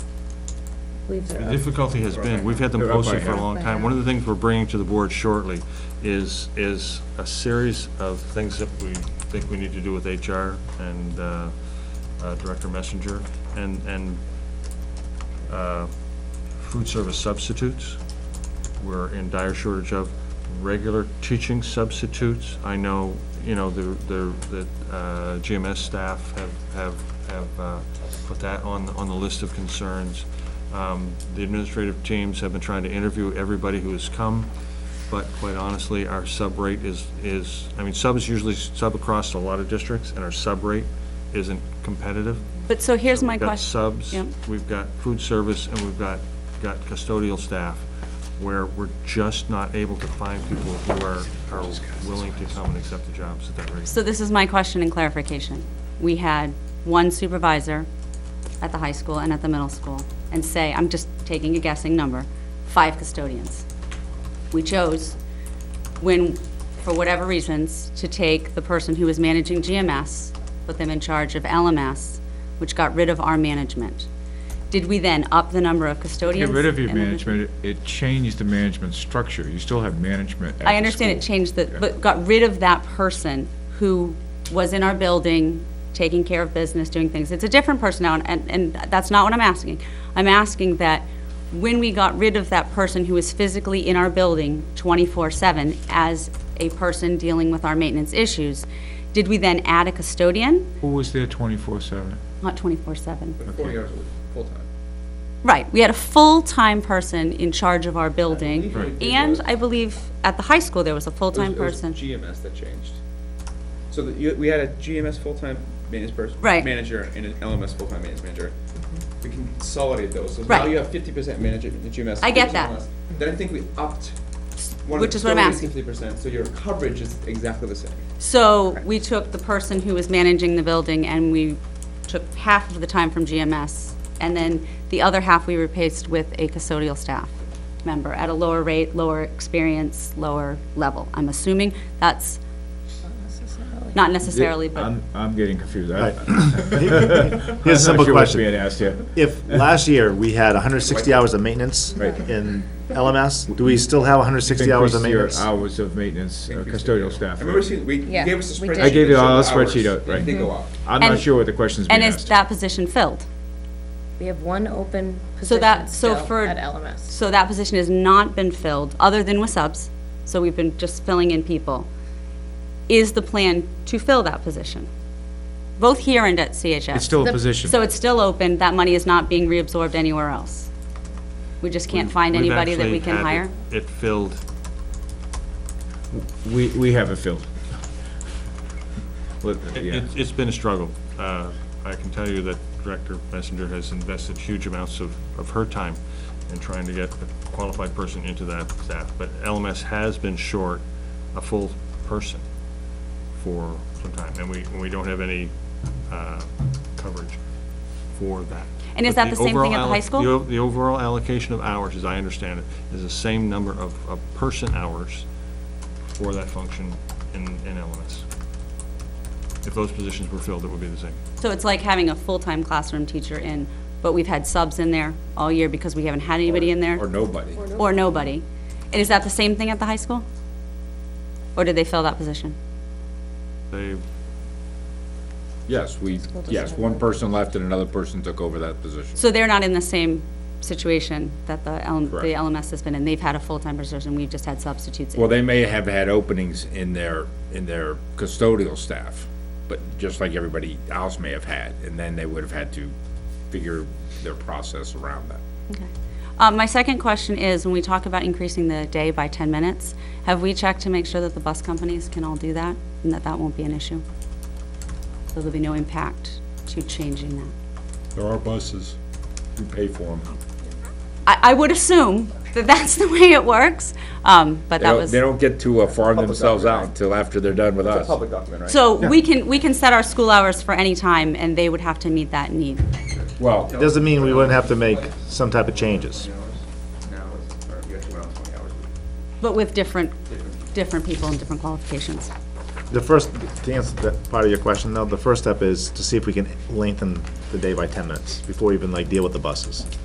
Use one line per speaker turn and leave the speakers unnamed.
leaves
The
are up.
difficulty has been, we've had them
They're up by
posted for a
half.
long time. One of the things we're bringing to the board shortly is, is a series of things that we think we need to do with HR and uh, uh, Director Messenger and, and uh, food service substitutes. We're in dire shortage of regular teaching substitutes. I know, you know, the, the, the uh, GMS staff have, have, have uh, put that on, on the list of concerns. Um, The administrative teams have been trying to interview everybody who has come, but quite honestly, our sub rate is, is, I mean, sub is usually sub across a lot of districts, and our sub rate isn't competitive.
But so here's my
We've got
question.
subs,
Yep.
we've got food service, and we've got, got custodial staff, where we're just not able to find people who are, are willing to come and accept the jobs at that rate.
So this is my question and clarification. We had one supervisor at the high school and at the middle school, and say, I'm just taking a guessing number, five custodians. We chose, when, for whatever reasons, to take the person who was managing GMS, put them in charge of LMS, which got rid of our management. Did we then up the number of
Get
custodians?
rid of your
and then-
management, it- it changed the management structure. You still have management at the
I understand it
school.
changed the, but got rid of that person who was in our building, taking care of business, doing things. It's a different person now, and, and that's not what I'm asking. I'm asking that when we got rid of that person who was physically in our building twenty-four-seven as a person dealing with our maintenance issues, did we then add a custodian?
Who was there twenty-four seven?
Not twenty-four-seven.
Forty hours a week, full-time.
Right, we had a full-time person in charge of our building.
believe it
And
was-
I believe at the high school, there was a
It was-
full-time
it was
person.
GMS that changed. So that you, we had a GMS full-time maintenance person.
Right.
Manager and an LMS full-time maintenance manager. We can consolidate those, so now
Right.
you have fifty percent manager, the GMS.
I get
50%
that.
LMS. Then I think we upped one of
Which
the
is what I'm asking.
Fifty percent, so your coverage is exactly the same.
So we took the person who was managing the building and we took half of the time from GMS. And then the other half we replaced with a custodial staff member at a lower rate, lower experience, lower level. I'm assuming that's not necessarily, but
I'm, I'm getting confused. I-
Here's a
I'm not
simple
sure what's
question.
being asked here.
If last year we had 160 hours of maintenance in LMS, do we still have 160 hours of
Increase your
maintenance?
Hours of maintenance, uh,
Increase the-
custodial staff.
I remember seeing, we, you
Yeah,
gave us a
we
spreadsheet.
did. I
gave you
that showed
all a
the hours.
spreadsheet out, right.
They go up.
I'm not
And-
sure what the question's being
and is
asked.
that position filled?
We have one open
So
position
that,
still
so for.
at LMS.
So that position has not been filled, other than with subs, so we've been just filling in people. Is the plan to fill that position? Both here and at CHS?
It's still a
The-
position.
So it's still open, that money is not being reabsorbed anywhere else? We just can't find
We've
anybody that
actually
we can
had
hire?
It it filled,
We, we have it filled. Let-
it-
yeah.
it's, it's been a struggle. Uh, I can tell you that Director Messenger has invested huge amounts of, of her time in trying to get a qualified person into that staff, but LMS has been short a full person for some time, and we, and we don't have any uh, coverage for that.
And is
But
that the same thing at the
overall
high
alloc-
school?
the o- The overall allocation of hours, as I understand it, is the same number of, of person hours for that function in, in LMS. If those positions were filled, it would be the same.
So it's like having a full-time classroom teacher in, but we've had subs in there all year because we haven't had anybody in
Or
there,
nobody.
or nobody. And is that the same thing at the high school? Or did they fill that position?
They,
Yes, we, yes, one person left and another person took over that position.
So they're not in the same situation that the L-
Correct.
the LMS has been in. They've had a full-time position, we've just had substitutes. in.
Well, they may have had openings in their, in their custodial staff, but just like everybody else may have had, and then they would have had to figure their process around that.
Okay. Um, My second question is, when we talk about increasing the day by 10 minutes, have we checked to make sure that the bus companies can all do that, and that that won't be an issue? So there'll be no impact to changing that?
There are buses. You pay for them.
I I would assume that that's the way it works, um, but
They
that
don't,
was,
they don't get to uh, farm
Public
themselves out
document.
until after they're done with
It's a
us.
public document, right?
so we can, we can set our school hours for any time, and they would have to meet that need.
Well,
Doesn't mean we wouldn't have to make some type of changes.
Now, it's, or you have to run on twenty hours a week.
But with different, different people and different qualifications.
The first, to answer that part of your question though, the first step is to see if we can lengthen the day by 10 minutes before we even like deal with the buses.